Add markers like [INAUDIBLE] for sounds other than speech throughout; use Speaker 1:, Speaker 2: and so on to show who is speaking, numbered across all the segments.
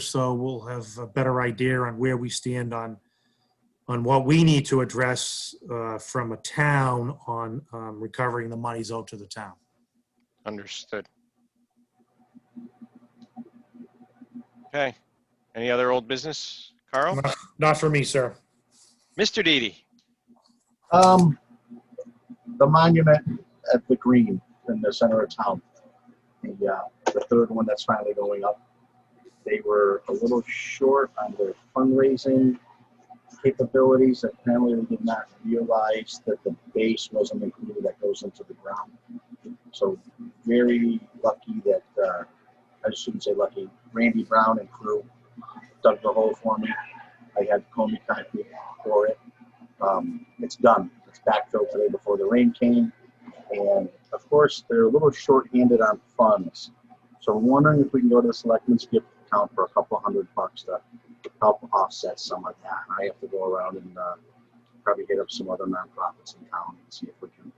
Speaker 1: so, we'll have a better idea on where we stand on, on what we need to address uh, from a town on um, recovering the monies owed to the town.
Speaker 2: Understood. Okay. Any other old business? Carl?
Speaker 1: Not for me, sir.
Speaker 2: Mr. Didi?
Speaker 3: Um, the monument at the green in the center of town. The, uh, the third one that's finally going up. They were a little short on their fundraising capabilities. Apparently, they did not realize that the base wasn't included that goes into the ground. So very lucky that, uh, I shouldn't say lucky, Randy Brown and crew dug the hole for me. I had Comey concrete for it um, it's done. It's backfilled today before the rain came. And of course, they're a little short-handed on funds. So I'm wondering if we can go to the selectmen's gift account for a couple hundred bucks to help offset some of that. I have to go around and uh, probably hit up some other nonprofits in town and see if we can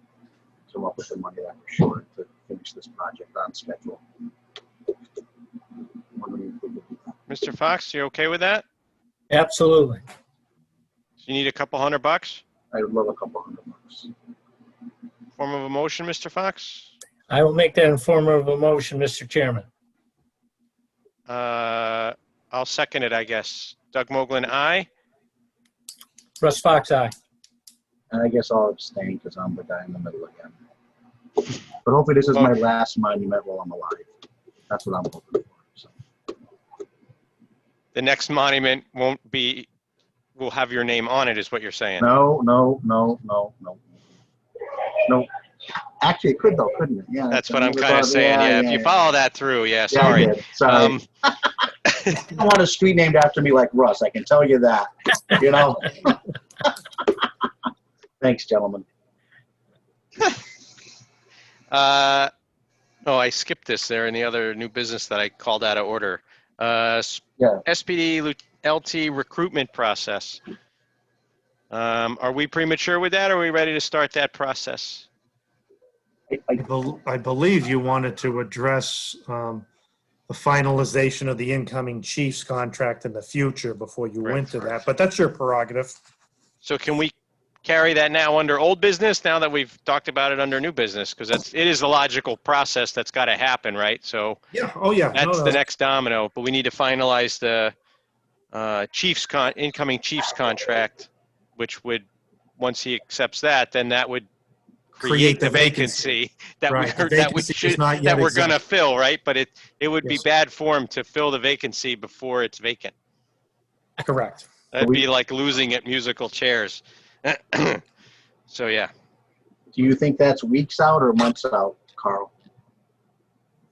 Speaker 3: come up with the money that we're short to finish this project on schedule. Wondering if we could do that.
Speaker 2: Mr. Fox, you okay with that?
Speaker 4: Absolutely.
Speaker 2: So You need a couple hundred bucks?
Speaker 3: I would love a couple hundred bucks.
Speaker 2: Form of a motion, Mr. Fox?
Speaker 4: I will make that in form of a motion, Mr. Chairman.
Speaker 2: Uh, I'll second it, I guess. Doug Moglen, aye.
Speaker 4: Russ Fox, aye.
Speaker 3: And I guess I'll abstain because I'm the guy in the middle again. But hopefully this is my last monument while I'm alive. That's what I'm hoping for. So,
Speaker 2: The next monument won't be, will have your name on it, is what you're saying.
Speaker 3: No, no, no, no, no. No. Actually, it could though, couldn't it? Yeah.
Speaker 2: That's what I'm kind of saying, yeah. If you follow that through, yeah,
Speaker 3: Yeah, I
Speaker 2: sorry.
Speaker 3: did. Sorry.
Speaker 2: Um,
Speaker 3: I don't want a street named after me like Russ. I can tell you that,
Speaker 2: [LAUGHS]
Speaker 3: you know? Thanks, gentlemen.
Speaker 2: Uh, oh, I skipped this there in the other new business that I called out of order. Uh, s-
Speaker 3: Yeah.
Speaker 2: SPD lu- LT recruitment process. Um, are we premature with that? Or are we ready to start that process?
Speaker 3: I-
Speaker 1: I
Speaker 3: I-
Speaker 1: bel- I believe you wanted to address um, the finalization of the incoming chief's contract in the future before you went to that, but that's your prerogative.
Speaker 2: So can we carry that now under old business now that we've talked about it under new business? Because that's, it is the logical process that's got to happen, right? So
Speaker 1: Yeah, oh, yeah. No,
Speaker 2: that's
Speaker 1: no.
Speaker 2: the next domino, but we need to finalize the uh, Chiefs con, incoming Chiefs contract, which would, once he accepts that, then that would create the vacancy that we,
Speaker 1: Right, the
Speaker 2: [LAUGHS] that we
Speaker 1: vacancy does
Speaker 2: should,
Speaker 1: not yet
Speaker 2: that we're gonna
Speaker 1: exist.
Speaker 2: fill, right? But it, it would be
Speaker 1: Yes.
Speaker 2: bad form to fill the vacancy before it's vacant.
Speaker 1: Correct.
Speaker 2: That'd
Speaker 3: We-
Speaker 2: be like losing at musical chairs. [CLEARS THROAT] So, yeah.
Speaker 3: Do you think that's weeks out or months out, Carl?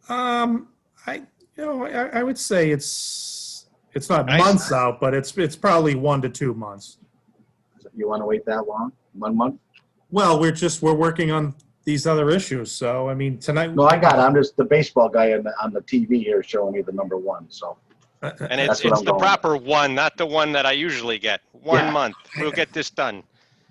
Speaker 1: Um, I, you know, I, I would say it's, it's not
Speaker 2: Nice.
Speaker 1: months out, but it's, it's probably one to two months.
Speaker 3: You want to wait that long? One month?
Speaker 1: Well, we're just, we're working on these other issues, so, I mean, tonight.
Speaker 3: No, I got it. I'm just the baseball guy on the, on the TV here showing me the number one. So
Speaker 1: Uh, uh,
Speaker 2: And it's,
Speaker 3: That's what
Speaker 2: it's
Speaker 3: I'm
Speaker 2: the
Speaker 3: going with.
Speaker 2: proper one, not the one that I usually get. One
Speaker 1: Yeah.
Speaker 2: month. We'll get this done.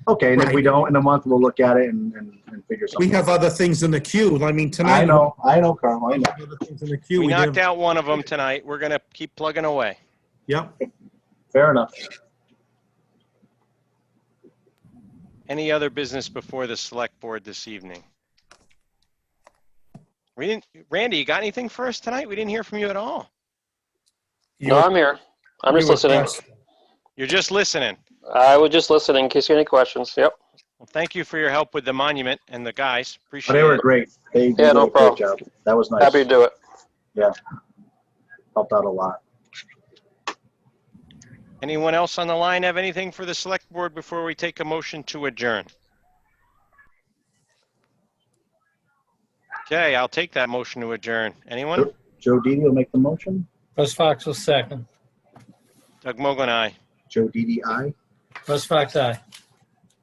Speaker 3: okay, and if we
Speaker 1: Right.
Speaker 3: don't in a month, we'll look at it and, and, and figure
Speaker 1: We
Speaker 3: something.
Speaker 1: have
Speaker 3: out.
Speaker 1: other things in the queue. I mean, tonight.
Speaker 3: I know, I know, Carl. I
Speaker 1: we
Speaker 3: know.
Speaker 1: have other things in the queue.
Speaker 2: We
Speaker 1: We
Speaker 2: knocked
Speaker 1: didn't-
Speaker 2: out one of them tonight. We're gonna keep plugging away.
Speaker 1: Yep.
Speaker 3: Fair enough.
Speaker 2: Any other business before the select board this evening? We didn't, Randy, you got anything for us tonight? We didn't hear from you at all.
Speaker 5: No, I'm here. I'm
Speaker 1: You
Speaker 5: just
Speaker 1: were
Speaker 5: listening.
Speaker 1: pressed.
Speaker 2: You're just listening.
Speaker 5: I was just listening in case you had any questions. Yep.
Speaker 2: Well, thank you for your help with the monument and the guys.
Speaker 3: But
Speaker 2: Appreciate
Speaker 3: they were
Speaker 2: it.
Speaker 3: great. They did
Speaker 5: Yeah, no
Speaker 3: a great
Speaker 5: problem.
Speaker 3: job. That was nice.
Speaker 5: Happy to do it.
Speaker 3: Helped out a lot.
Speaker 2: Anyone else on the line have anything for the select board before we take a motion to adjourn? Okay, I'll take that motion to adjourn. Anyone?
Speaker 3: Joe Didi will make the motion.
Speaker 4: Russ Fox will second.
Speaker 2: Doug Mogul and I.
Speaker 3: Joe Didi, aye.
Speaker 4: Russ Fox, aye.